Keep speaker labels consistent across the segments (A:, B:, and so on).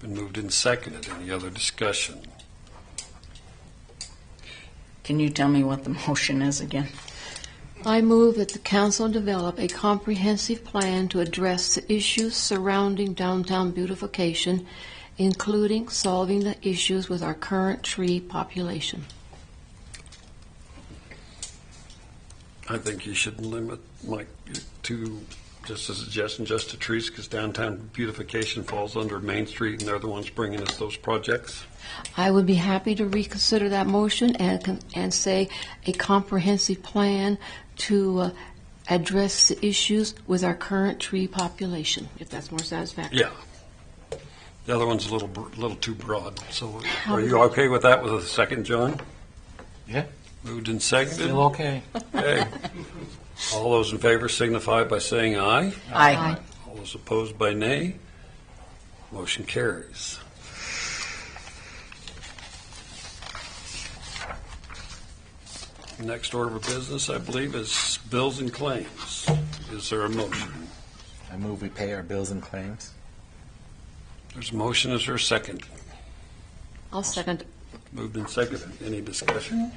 A: Been moved and seconded. Any other discussion?
B: Can you tell me what the motion is again?
C: I move that the council develop a comprehensive plan to address the issues surrounding downtown beautification, including solving the issues with our current tree population.
A: I think you should limit, Mike, to, just a suggestion, just to trees, because downtown beautification falls under Main Street, and they're the ones bringing us those projects.
C: I would be happy to reconsider that motion and, con- and say a comprehensive plan to uh, address the issues with our current tree population, if that's more satisfactory.
A: Yeah. The other one's a little, br- little too broad, so
C: How
A: are
C: is
A: you
C: it?
A: okay with that with a second, John?
D: Yeah.
A: Moved and seconded?
D: Still okay.
A: Okay. All those in favor signify by saying aye.
B: Aye.
A: All those opposed by nay. Motion carries. Next order of business, I believe, is bills and claims. Is there a motion?
D: I move we pay our bills and claims.
A: There's a motion, is there a second?
C: I'll second.
A: Moved and seconded. Any discussion?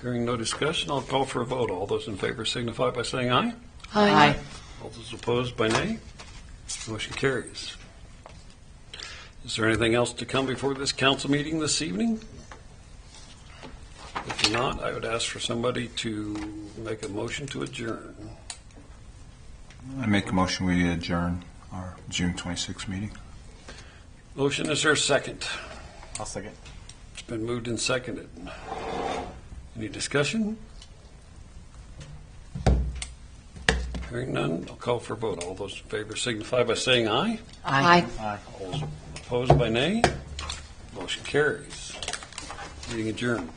A: Hearing no discussion, I'll call for a vote. All those in favor signify by saying aye.
B: Aye.
A: All those opposed by nay. Motion carries. Is there anything else to come before this council meeting this evening? If not, I would ask for somebody to make a motion to adjourn.
E: I make a motion, we adjourn our June 26 meeting.
A: Motion, is there a second?
D: I'll second.
A: It's been moved and seconded. Any discussion? Hearing none, I'll call for a vote. All those in favor signify by saying aye.
B: Aye.
D: Aye.
A: All those opposed by nay. Motion carries. Meeting adjourned.